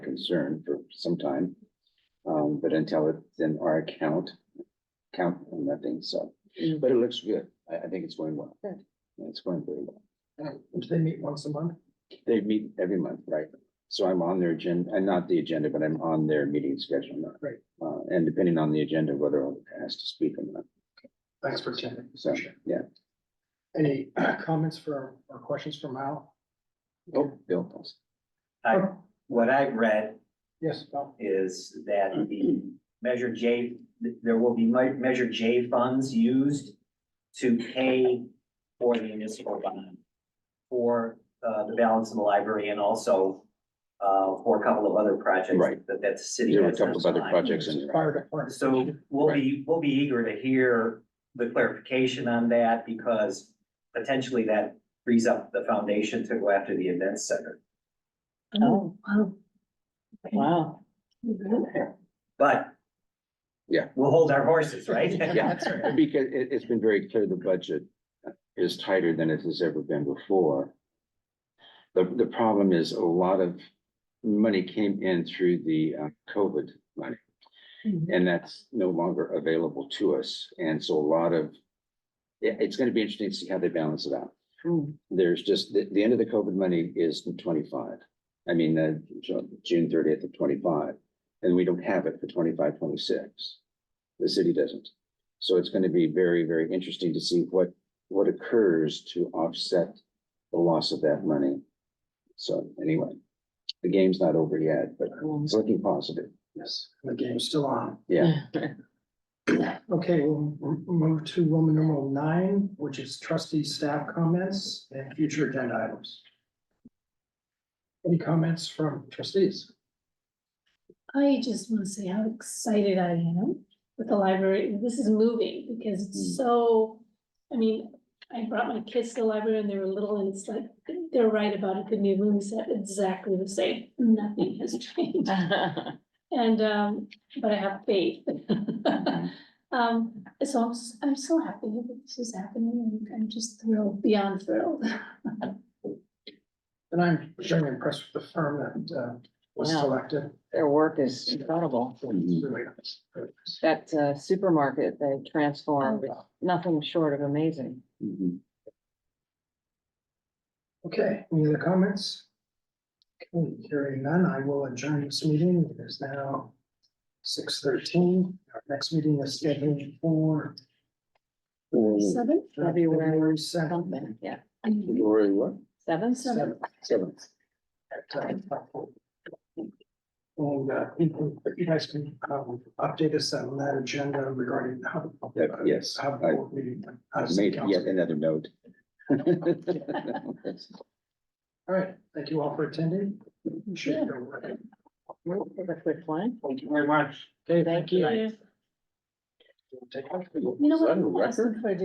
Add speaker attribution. Speaker 1: concern for some time. Um, but until it's in our account, count on nothing, so, but it looks good. I, I think it's going well.
Speaker 2: Good.
Speaker 1: Yeah, It's going very well.
Speaker 3: Uh, Do they meet once a month?
Speaker 1: They meet every month, right? So I'm on their agenda, and not the agenda, but I'm on their meeting schedule now.
Speaker 3: Right.
Speaker 1: Uh, and depending on the agenda, whether I'll ask to speak or not,
Speaker 3: Thanks for attending.
Speaker 1: so, yeah.
Speaker 3: Any comments for, or questions for Mal?
Speaker 1: Oh, Bill. Paulson.
Speaker 4: I, what I've read
Speaker 3: Yes, Mal?
Speaker 4: is that the Measure J, th- there will be mi- Measure J funds used to pay for the municipal bond for, uh, the balance of the library and also, uh, for a couple of other projects
Speaker 1: Right.
Speaker 4: that, that the city
Speaker 1: There were a
Speaker 4: has.
Speaker 1: couple of other projects in there.
Speaker 3: Fire department.
Speaker 4: So we'll be, we'll be eager to hear the clarification on that because potentially that frees up the foundation to go after the events center.
Speaker 2: Oh, wow. Wow.
Speaker 4: But.
Speaker 1: Yeah.
Speaker 4: We'll hold our horses, right?
Speaker 1: Yeah. Because it, it's been very clear the budget is tighter than it has ever been before. The, the problem is a lot of money came in through the uh, COVID money.
Speaker 2: Mhm.
Speaker 1: And that's no longer available to us. And so a lot of, yeah, it's gonna be interesting to see how they balance it out.
Speaker 2: Mm.
Speaker 1: There's just, the, the end of the COVID money is in twenty-five. I mean, uh, Ju- June thirtieth of twenty-five, and we don't have it for 25, 26. The city doesn't. So it's gonna be very, very interesting to see what, what occurs to offset the loss of that money. So anyway, the game's not over yet, but it's looking positive. Yes.
Speaker 3: The game's still on.
Speaker 1: Yeah,
Speaker 3: Okay, we'll m- move to Roman numeral nine, which is trustee staff comments and future agenda items. Any comments from trustees?
Speaker 5: I just want to say how excited I am with the library. This is moving because
Speaker 1: Mm.
Speaker 5: it's so, I mean, I brought my kids to the library and they were little and it's like, they're right about it. The new room is exactly the same. Nothing has changed. And, um, but I have faith. Um, so I'm, s- I'm so happy that this is happening and I'm just thrilled, beyond thrilled.
Speaker 3: And I'm very impressed with the firm that uh, was
Speaker 2: Yeah.
Speaker 3: selected.
Speaker 2: Their work is incredible.
Speaker 3: It's really nice.
Speaker 2: That uh, supermarket they transformed,
Speaker 3: Oh.
Speaker 2: nothing short of amazing.
Speaker 1: Mhm.
Speaker 3: Okay, any other comments? Okay, Hearing none, I will adjourn this meeting. It is now six thirteen. Our next meeting is scheduled for
Speaker 1: Or
Speaker 5: Seven?
Speaker 2: February
Speaker 3: February seventh.
Speaker 2: Something, yeah.
Speaker 1: or what?
Speaker 2: Seven,
Speaker 5: Seven.
Speaker 1: Seven.
Speaker 3: And uh, you you guys can um, update us on that agenda regarding how.
Speaker 1: Yeah, yes,
Speaker 3: How
Speaker 1: I-
Speaker 3: board meeting. how does the
Speaker 1: Made yet
Speaker 3: council-
Speaker 1: another note.
Speaker 3: All right, thank you all for attending. Appreciate your work.
Speaker 2: We'll take a quick one.
Speaker 4: Thank you very much.
Speaker 3: Okay,
Speaker 2: Thank you.
Speaker 5: Yeah.
Speaker 3: Take care.
Speaker 5: You know
Speaker 1: Is
Speaker 5: what?
Speaker 1: that a
Speaker 5: I'm
Speaker 1: record?
Speaker 5: asking for a